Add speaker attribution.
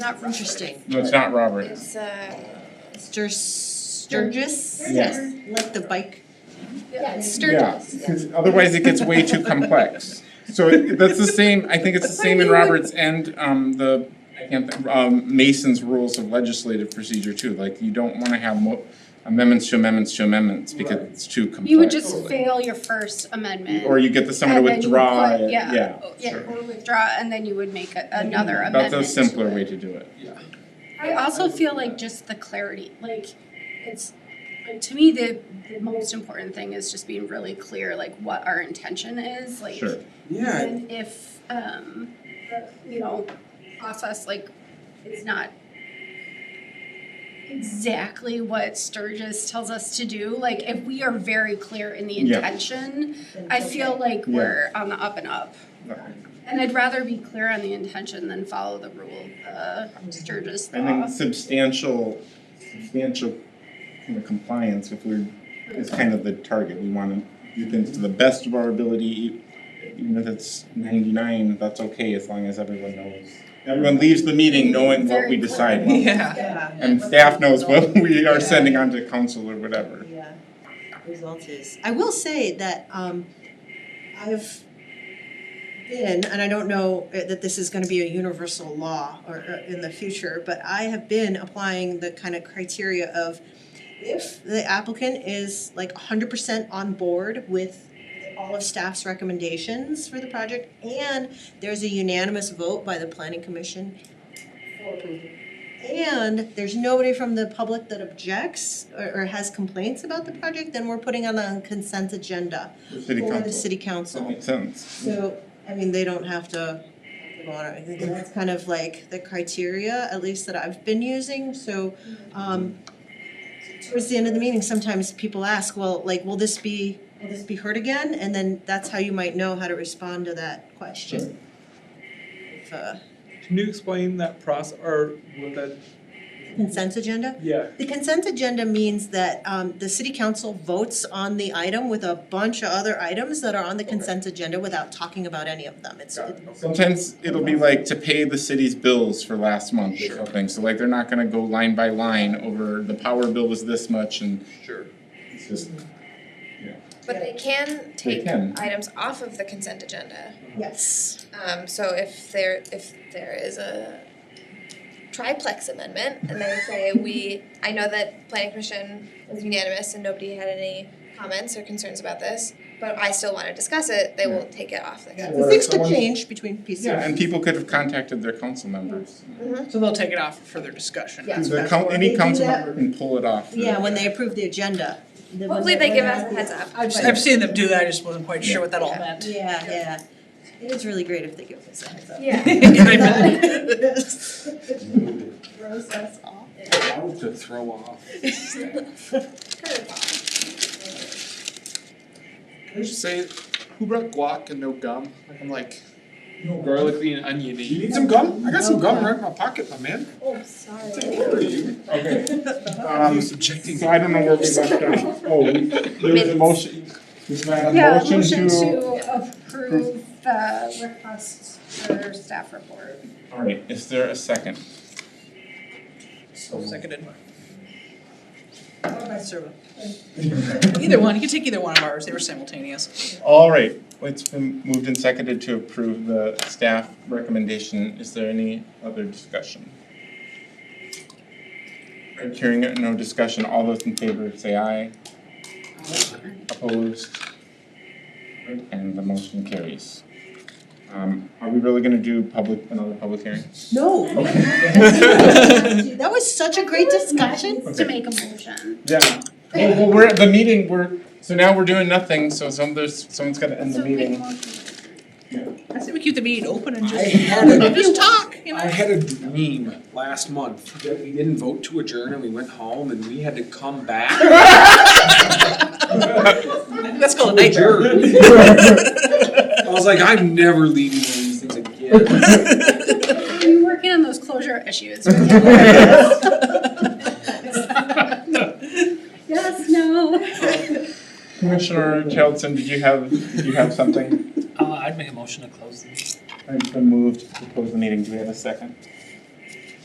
Speaker 1: not interesting.
Speaker 2: No, it's not Robert.
Speaker 3: It's uh,
Speaker 1: Stur- Sturgis?
Speaker 2: Yes.
Speaker 1: Like the bike?
Speaker 3: yeah, it's
Speaker 2: Yeah,
Speaker 3: Sturgis.
Speaker 2: because otherwise it gets way too complex. So it- that's the same, I think it's the same in Robert's and um the, I can't, think- um Mason's rules of legislative procedure too. Like you don't wanna have mo- amendments to amendments to amendments because
Speaker 4: Right.
Speaker 2: it's too complex.
Speaker 3: You would just fail your first amendment.
Speaker 2: Or you get the someone to
Speaker 3: and then you
Speaker 2: withdraw
Speaker 3: would-
Speaker 2: it,
Speaker 3: yeah, Oh,
Speaker 2: yeah.
Speaker 3: Yeah,
Speaker 2: sure.
Speaker 3: or withdraw, and then you would make a- another amendment.
Speaker 2: That's a simpler way to do it.
Speaker 3: I also feel like just the clarity, like it's, like to me, the the most important thing is just being really clear, like what our intention is, like.
Speaker 2: Sure.
Speaker 4: Yeah,
Speaker 3: And if, um, you know, process like is not exactly what Sturgis tells us to do, like if we are very clear in the
Speaker 2: Yeah.
Speaker 3: intention, I feel like
Speaker 2: Yeah.
Speaker 3: we're on the up and up. And I'd rather be clear on the intention than follow the rule of the Sturgis
Speaker 2: I think
Speaker 3: law.
Speaker 2: substantial, substantial kind of compliance if we're, is kind of the target, we wanna do things to the best of our ability. Even if it's ninety-nine, that's okay, as long as everyone knows, everyone leaves the meeting knowing what we
Speaker 3: Very clear.
Speaker 2: decided.
Speaker 5: Yeah.
Speaker 6: Yeah.
Speaker 2: And staff knows what we are sending on to council or whatever.
Speaker 6: Yeah, results is.
Speaker 1: I will say that um I've been, and I don't know uh, that this is gonna be a universal law or or in the future, but I have been applying the kind of criteria of if the applicant is like hundred percent on board with all of staff's recommendations for the project and there's a unanimous vote by the planning commission for approval. And there's nobody from the public that objects or or has complaints about the project, then we're putting on a consent agenda
Speaker 2: The City
Speaker 1: for the
Speaker 2: council,
Speaker 1: city
Speaker 2: that
Speaker 1: council.
Speaker 2: makes sense.
Speaker 1: So, I mean, they don't have to go on, I think that's kind of like the criteria, at least that I've been using, so um towards the end of the meeting, sometimes people ask, well, like, will this be, will this be heard again? And then that's how you might know how to respond to that question. If, uh,
Speaker 5: Can you explain that process or what that?
Speaker 1: Consent agenda?
Speaker 5: Yeah.
Speaker 1: The consent agenda means that um the city council votes on the item with a bunch of other items that are on the consent agenda without talking about any of them, it's it-
Speaker 2: Sometimes it'll be like to pay the city's bills for last month or something, so like they're not gonna go line by line over the power bill was this much and
Speaker 5: Sure.
Speaker 2: it's just,
Speaker 3: Yeah.
Speaker 7: But they can
Speaker 2: they
Speaker 7: take
Speaker 2: can.
Speaker 7: items off of the consent agenda.
Speaker 1: yes.
Speaker 7: Um, so if there, if there is a triplex amendment and they say we, I know that planning commission was unanimous and nobody had any comments or concerns about this, but I still wanna discuss it, they will take it off the consent.
Speaker 2: Or if
Speaker 1: Things could
Speaker 2: someone-
Speaker 1: change between pieces.
Speaker 2: Yeah, and people could have contacted their council members.
Speaker 8: So they'll take it off for further discussion.
Speaker 1: Yeah. That's
Speaker 2: The
Speaker 1: right.
Speaker 2: coun-
Speaker 1: They
Speaker 2: any
Speaker 1: do
Speaker 2: council
Speaker 1: that.
Speaker 2: member can pull it off.
Speaker 1: Yeah, when they approve the agenda. the- when
Speaker 7: Hopefully they
Speaker 1: when
Speaker 7: give
Speaker 1: they're
Speaker 7: us
Speaker 1: at
Speaker 7: a
Speaker 1: the-
Speaker 7: heads up.
Speaker 8: I've, I've seen them do that, I just wasn't quite sure what that all meant.
Speaker 1: Yeah, yeah, it is really great if they give us a heads up.
Speaker 3: Yeah.
Speaker 8: I meant-
Speaker 6: Throws us off.
Speaker 4: I would just throw off. Can I just say, who brought guac and no gum? Like I'm like garlicly and oniony. You need some gum? I got some gum right in my pocket, my man.
Speaker 3: Oh, sorry.
Speaker 2: Okay,
Speaker 4: Are
Speaker 2: um,
Speaker 4: you subjecting
Speaker 2: so I don't know where we left off. Oh, we- there was a motion, was that a
Speaker 3: Yeah,
Speaker 2: motion to?
Speaker 3: approve the request for staff report.
Speaker 2: All right, is there a second?
Speaker 8: Seconded.
Speaker 1: Or by servo.
Speaker 8: Either one, you can take either one of ours, they were simultaneous.
Speaker 2: All right, it's been moved and seconded to approve the staff recommendation. Is there any other discussion? All right, Hearing no discussion, all those in favor say aye. Opposed? Right, And the motion carries. Um, are we really gonna do public, another public hearing?
Speaker 1: No.
Speaker 2: Okay.
Speaker 1: That was such a great discussion.
Speaker 3: To make a motion.
Speaker 2: Yeah. Well, well, we're, the meeting, we're, so now we're doing nothing, so some, there's, someone's gotta end the
Speaker 3: So make a
Speaker 2: meeting.
Speaker 3: motion.
Speaker 8: I say we keep the meeting open and
Speaker 4: I
Speaker 8: just,
Speaker 4: had a-
Speaker 8: just talk, you
Speaker 4: I
Speaker 8: know?
Speaker 4: had a dream last month that we didn't vote to adjourn and we went home and we had to come back.
Speaker 8: Let's call it a
Speaker 4: Adjourn. I was like, I'm never leaving one of these things again.
Speaker 8: night.
Speaker 3: We're working on those closure issues. Yes, no.
Speaker 2: Commissioner Chelton, did you have, did you have something?
Speaker 9: Uh, I'd make a motion to close the meeting.
Speaker 2: It's been moved to close the meeting. Do we have a second?